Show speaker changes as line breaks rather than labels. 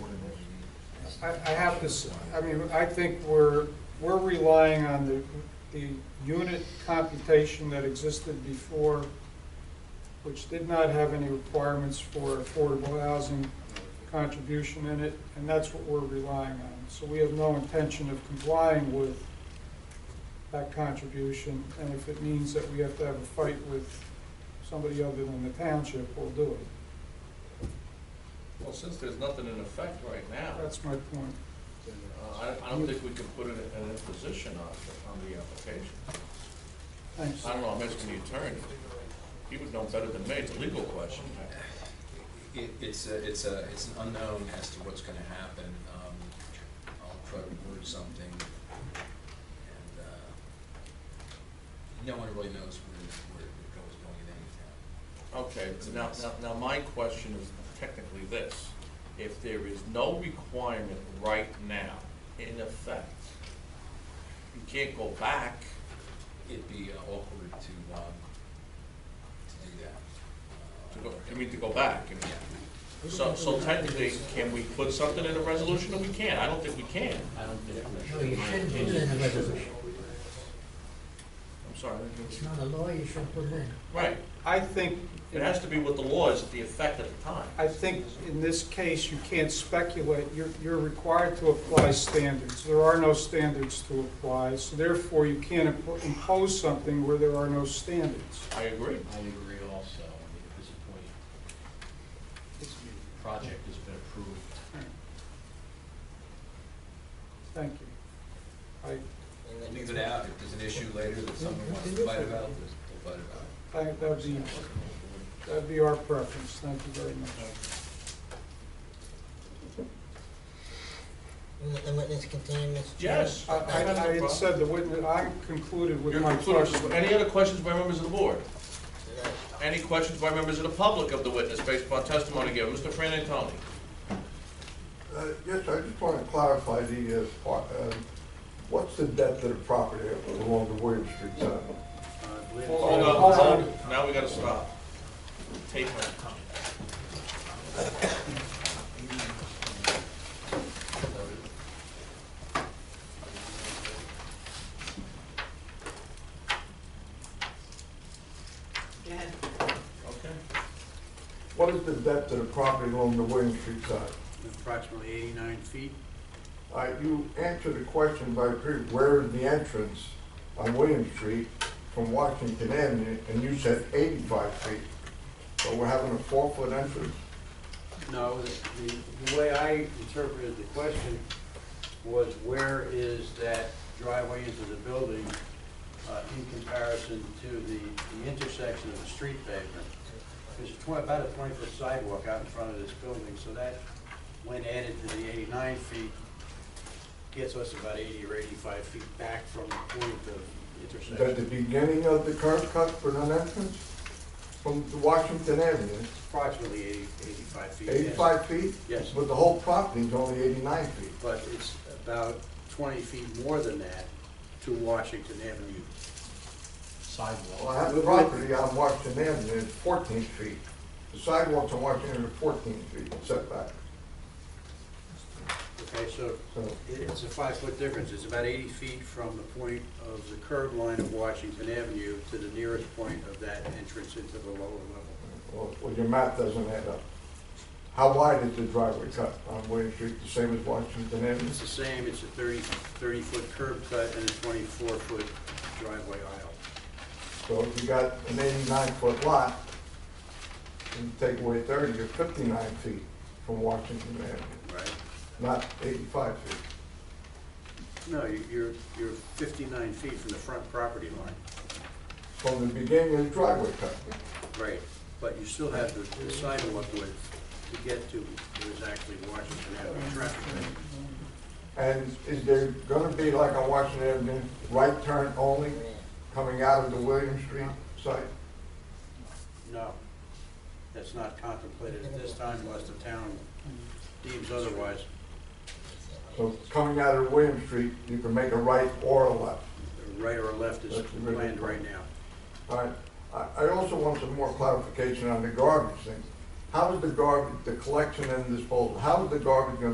I, I have to, s- I mean, I think we're, we're relying on the, the unit computation that existed before, which did not have any requirements for affordable housing contribution in it, and that's what we're relying on. So we have no intention of complying with that contribution, and if it means that we have to have a fight with somebody other than the township, we'll do it.
Well, since there's nothing in effect right now,
That's my point.
uh, I, I don't think we can put an, an imposition on, on the application.
Thanks.
I don't know, I'm asking the attorney. He would know better than me, it's a legal question.
It, it's a, it's a, it's an unknown as to what's gonna happen. Um, I'll try to word something. And, uh, no one really knows where, where it goes going in any town.
Okay, now, now, now my question is technically this. If there is no requirement right now, in effect, you can't go back,
It'd be uh, awkward to, um, to do that. Uh,
to go, I mean, to go back. I mean,
Yeah,
So, so technically, can we put something in a resolution? No, we can't. I don't think we can.
I don't think.
No, you shouldn't put it in the resolution.
I'm sorry. I didn't hear what you
It's not a law, you shouldn't put it in.
Right,
I think.
it has to be what the law is at the effect at the time.
I think in this case, you can't speculate. You're, you're required to apply standards. There are no standards to apply, so therefore you can't impo- impose something where there are no standards.
I agree.
I agree also, I mean, at this point, this project has been approved.
Thank you. I,
We'll Leave it out. If there's an issue later that someone wants to fight about, we'll fight about it.
I, that'd be, that'd be our preference. Thank you very much.
And the- the witness continue, Mr. Chair?
Yes.
I, I I had said the witness, I concluded with
You're
my
concluded.
question.
Any other questions by members of the board?
No.
Any questions by members of the public of the witness based upon testimony given? Mr. Fran Antoni?
Uh, Yes, sir, I just want to clarify the, uh, spot, um, what's the depth of the property along the William Street side?
Hold on, hold on. Now we gotta stop. Tape her.
Go ahead.
Okay.
What is the depth of the property along the William Street side?
approximately 89 feet.
Uh, You answered the question by, pre- where is the entrance on William Street from Washington Avenue, and you said 85 feet. So we're having a four-foot entrance?
No, the, the way I interpreted the question was where is that driveway into the building uh, in comparison to the, the intersection of the street pavement? There's a twen- about a 20-foot sidewalk out in front of this building, so that, when added to the 89 feet, gets us about 80 or 85 feet back from the point of
Is that the
intersection.
beginning of the curb cut for an entrance from Washington Avenue?
Approximately 80, 85 feet. yes.
85 feet?
Yes.
But the whole property is only 89 feet.
but it's about 20 feet more than that to Washington Avenue.
Well,
Sidewalk.
I have property on Washington Avenue, it's 14 feet. The sidewalks on Washington Avenue are 14 feet setback.
Okay, so
So
it- it's a five-foot difference. It's about 80 feet from the point of the curb line of Washington Avenue to the nearest point of that entrance into the lower level.
well, well, your math doesn't add up. How wide is the driveway cut on William Street, the same as Washington Avenue?
It's the same, it's a 30, 30-foot curb cut and a 24-foot driveway aisle.
So if you got an 89-foot lot, and you take away 30, you're 59 feet from Washington Avenue,
Right.
not 85 feet.
No, you- you're, you're 59 feet from the front property line.
From the beginning of the driveway cut.
Right, but you still have the- the sidewalk width to get to, there's actually Washington Avenue traffic.
And is there gonna be like on Washington Avenue, right turn only coming out of the William Street site?
No, that's not contemplated at this time unless the town deems otherwise.
So coming out of William Street, you can make a right or a left.
The Right or left is
That's really-
planned right now.
All right, I, I also want some more clarification on the garbage thing. How is the garbage, the collection and disposal, how is the garbage gonna